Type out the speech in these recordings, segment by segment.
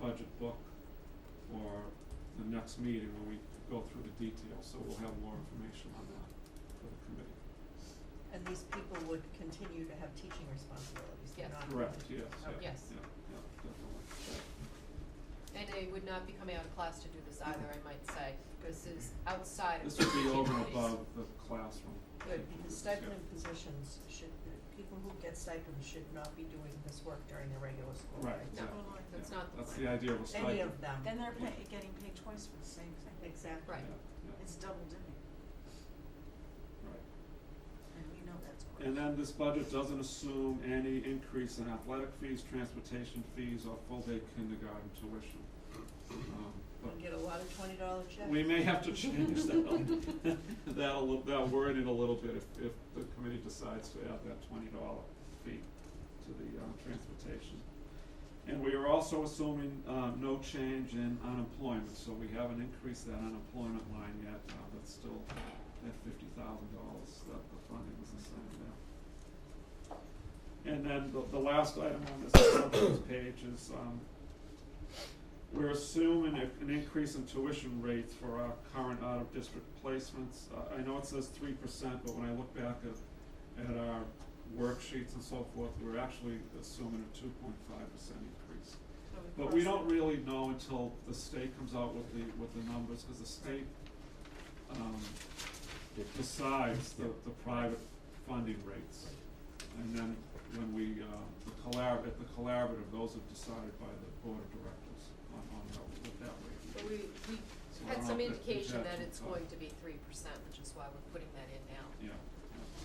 budget book or the next meeting when we go through the details, so we'll have more information on that for the committee. And these people would continue to have teaching responsibilities, they're Yes. not. Correct, yes, Oh, yeah, Okay. yeah, Yes. yeah, definitely. And they would not be coming out of class to do this either, I might say, this is outside of This the would be teaching over and duties. above the classroom. Good, activities, because yeah. stipend positions should, people who get stipends should not be doing this work during their regular school Right, day. exactly, No, yeah. that's not the That's plan. the idea of a stipend. Any of them. Then they're pay, getting paid twice for the same thing. Exactly. Right. Yeah, It's double dipping, yeah, right. and we know that's. And then this budget doesn't assume any increase in athletic fees, transportation fees, or full-day kindergarten tuition. Um, We'll but get a lot of twenty dollar checks. We may have to change that, that'll, that wording a little bit if, if the committee decides to add that twenty dollar fee to the, uh, transportation. And we are also assuming, uh, no change in unemployment, so we haven't increased that unemployment line yet, uh, that's still at fifty thousand dollars, that the funding is assigned there. And then the, the last item on this assumptions page is, um, we're assuming a- an increase in tuition rates for our current out-of-district placements. Uh, I, I know it says three percent, but when I look back at, at our worksheets and so forth, we're actually assuming a two point five percent increase. But we don't really know until the state comes out with the, with the numbers, cause the state, um, decides the, the private funding rates. And then when we, uh, the collab, at the collaborative, those are decided by the board of directors on, on how, what that rate is. But we, we So I had don't some know if indication that actually it's got- going to be three percent, which is why we're putting that in now. Yeah,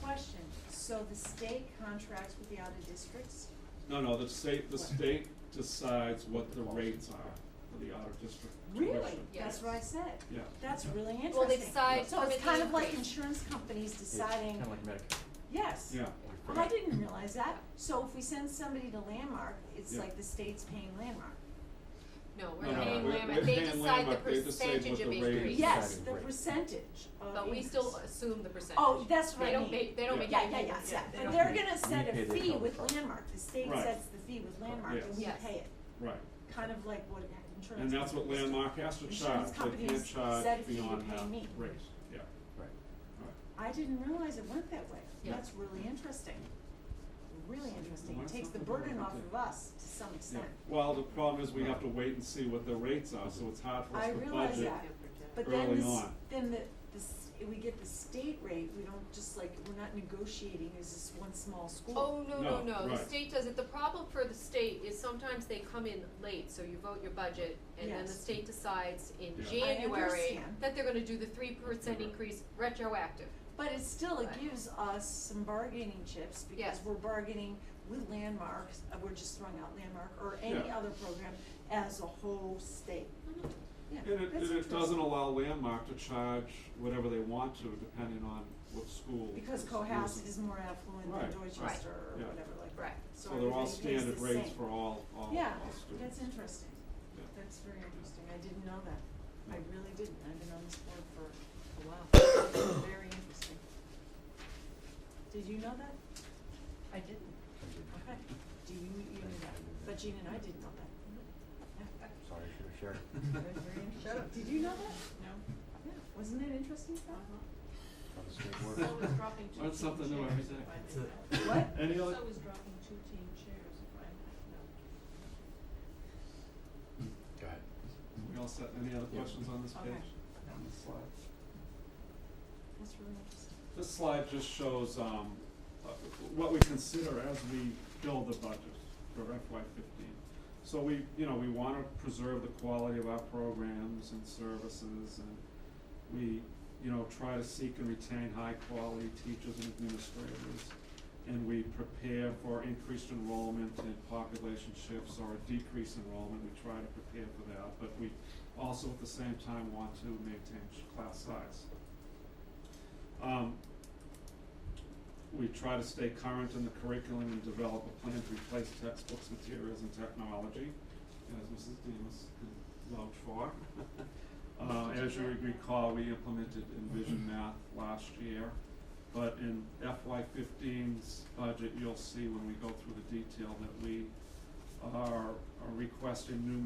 Question, so the state contracts with the outer districts? no, no, the state, the What? state decides what the rates are for the out-of-district tuition. Yes. That's what I said. Yeah. That's yeah. really interesting. Well, they decide So permit it's the kind of like increase. insurance companies Kind deciding, of like Medicare. yes. Yeah, Well, I didn't realize that, so if we send somebody to Landmark, it's Yeah. like the state's paying Landmark. No, No, we're no, paying we're- we're Lambert, they paying decide the Lambert, they decide what percentage the of rate increase. is. Yes, deciding the rate. percentage of But we increase. still assume the percentage. Oh, that's what They I don't mean. make, they don't Yeah. make Yeah, any yeah, yeah, difference. yeah, They but don't they're make- gonna set pay a their fee health with costs. Landmark, the state Right. sets the fee with Landmark and we pay it. Yes. Yes. right, Kind of like what insurance. and that's what companies do. Landmark has to charge, Insurance they can't companies set a charge fee to beyond pay that rate, yeah, right. me. I didn't realize it went that way, Yeah. that's really interesting, really interesting, Why it takes the something burden off like that? of us to some Yeah, extent. well, the problem is we have to wait and see what the rates are, so it's hard for us I to budget. realize that. But Early then this, on. then the, this, we get the state rate, we don't just like, we're not negotiating as this one small school. Oh, no, No, no, no, the right. state does it, the problem for the state is sometimes they come in late, so you vote your budget, and then the Yes. state decides in Yeah. I January understand. that they're gonna do the three percent Mhm. increase retroactive. But it still, it Right. gives us some bargaining chips because Yes. we're bargaining with landmarks, uh, we're just throwing out landmark or any Yeah. other program as a whole state. Yeah, And it, that's and it interesting. doesn't allow Landmark to charge whatever they want to, depending on what school. Because is Cohasset using. is more affluent Right, than right, Dorchester or yeah. whatever like that. Right. So they're all everybody pays standard the rates same. for all, all, all Yeah, students. that's interesting. Yeah. That's very interesting. I didn't know that. I Yeah. really didn't. I've been on this board for a while. Very interesting. Did you know that? I didn't. Okay. Do you, you knew that? But Jean and I didn't know that. Sorry, should have shared. Shut up. Did you know that? No. Yeah. Wasn't that interesting stuff? Uh-huh. That was great work. dropping two That's something team new every chairs day. if I That's may it. know. What? Any other, So is dropping two team chairs if I may know. Go ahead. we all set, any other Yeah. questions on this page? Okay. On this slide? That's really interesting. This slide just shows, um, uh, what we consider as we build the budget for FY fifteen. So we, you know, we wanna preserve the quality of our programs and services and we, you know, try to seek and retain high-quality teachers and administrators. And we prepare for increased enrollment and population shifts or a decreased enrollment, we try to prepare for that, but we also at the same time want to maintain class size. Um, we try to stay current in the curriculum and develop a plan to replace textbooks, materials, and technology, as Mrs. Demus can vouch for. Uh, as you recall, we implemented Envision Math last year, but in FY 15s budget, you'll see when we go through the detail that we are are requesting new